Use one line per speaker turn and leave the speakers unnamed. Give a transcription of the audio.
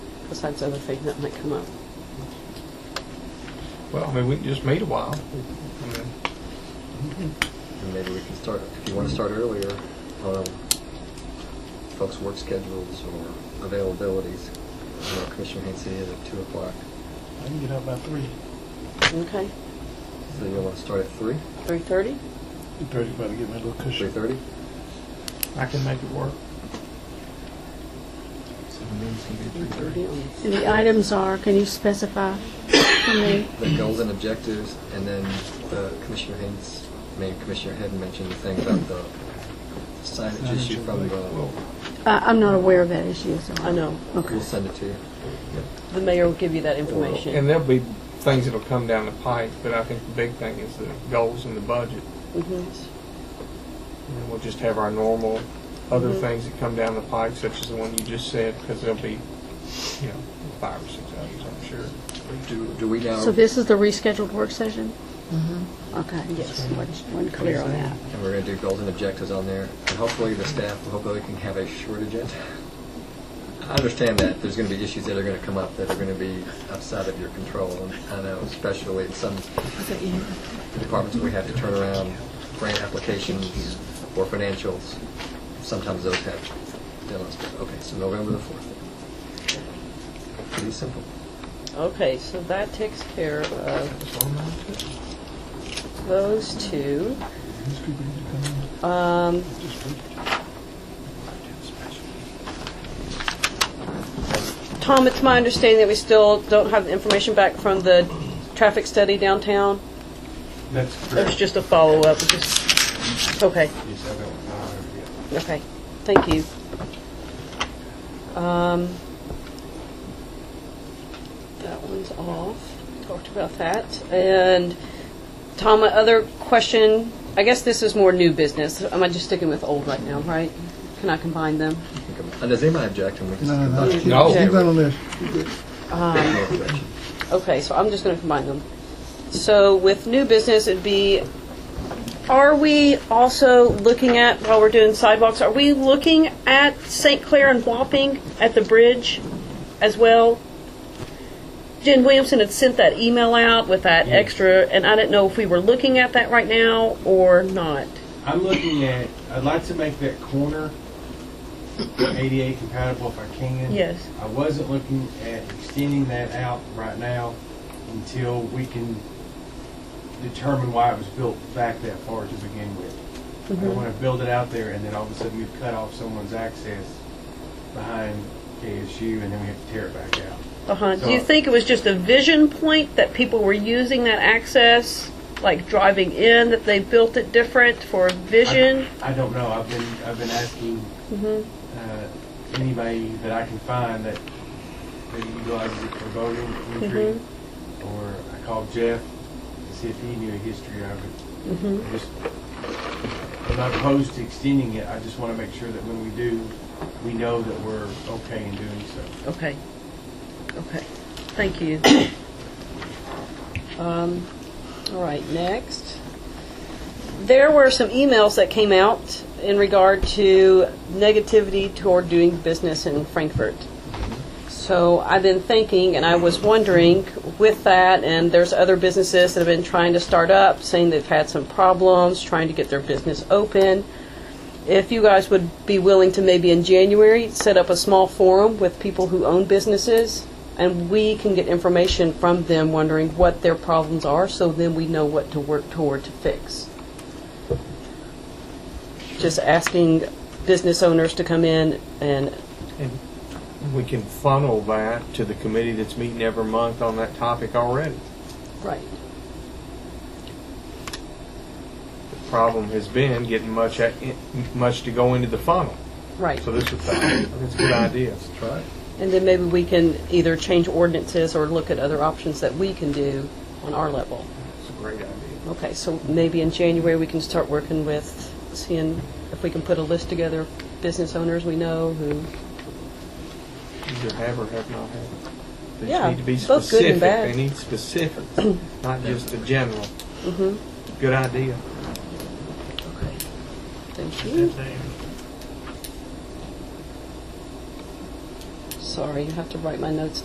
besides other things that might come up.
Well, I mean, we can just meet a while. I mean,
And maybe we can start, if you want to start earlier, um, folks' work schedules or availabilities. You know, Commissioner Haines is at two o'clock,
I can get out by three,
Okay,
so you want to start at three,
3:30?
three thirty, about to get my little
three
cushion.
thirty?
I can make it work.
Yes.
And the items are, can you specify for me?
The goals and objectives, and then uh, Commissioner Haynes, I mean, Commissioner Head mentioned the thing about the signage issue from the,
Well,
I- I'm not aware of that issue, so.
I know,
Okay.
we'll send it to you.
the mayor will give you that information.
And there'll be things that'll come down the pipe, but I think the big thing is the goals and the budget.
Mhm.
And we'll just have our normal other things that come down the pipe, such as the one you just said, because there'll be, you know, five or six others, I'm sure.
Do do we now,
So
and
this is the rescheduled work session?
Mm-hmm.
Okay, yes, wasn't clear on that.
we're going to do goals and objectives on there, and hopefully the staff, hopefully we can have a short agenda. I understand that, there's going to be issues that are going to come up that are going to be outside of your control, and I know especially in some departments where we have to turn around grant applications or financials, sometimes those have deadlines, but, okay, so November the 4th. Pretty simple.
Okay, so that takes care of
That's all I'm gonna do.
those two.
These people need to come
Um,
in, just wait.
Tom, it's my understanding that we still don't have the information back from the traffic study downtown?
That's
It was just a follow-up, it just, okay. Okay, thank you. Um, That one's off, talked about that. And Tom, my other question, I guess this is more new business. Am I just sticking with old right now, right? Can I combine them?
And does anybody object? and we can-
No, no, no. keep-
No.
Keep that on there.
No objection.
Okay, so I'm just going to combine them. So with new business, it'd be, are we also looking at, while we're doing sidewalks, are we looking at St. Clair and Wapping at the bridge as well? Jen Williamson had sent that email out with that extra, and I didn't know if we were looking at that right now or not.
I'm looking at, I'd like to make that corner ADA compatible if I can.
Yes.
I wasn't looking at extending that out right now until we can determine why it was built back that far to begin with. I don't want to build it out there and then all of a sudden we've cut off someone's access behind KSU and then we have to tear it back out.
Uh-huh. Do you think it was just a vision point that people were using that access, like driving in, that they built it different for vision?
I don't know, I've been, I've been asking
Mm-hmm.
uh, anybody that I can find that that utilizes it for voting entry.
Mm-hmm.
Or I called Jeff to see if he knew a history of it.
Mm-hmm.
I just, I'm not opposed to extending it, I just want to make sure that when we do, we know that we're okay in doing so.
Okay. Okay. Thank you. um, all right. Next, there were some emails that came out in regard to negativity toward doing business in Frankfurt. So I've been thinking, and I was wondering with that, and there's other businesses that have been trying to start up, saying they've had some problems trying to get their business open if you guys would be willing to maybe in January set up a small forum with people who own businesses and we can get information from them wondering what their problems are so then we know what to work toward to fix. Just asking business owners to come in and
We can funnel that to the committee that's meeting every month on that topic already.
right.
The problem has been getting much, a- much to go into the funnel.
Right.
So this is, I think it's a good idea.
Try it.
And then maybe we can either change ordinances or look at other options that we can do on our level.
It's a great idea.
Okay, so maybe in January, we can start working with, seeing if we can put a list together of business owners we know who,
either have or have not had. They
Yeah,
need to be
both good and
specific.
bad.
They need specifics, not just a general. Good idea.
okay, thank you. Sorry, you have to write my notes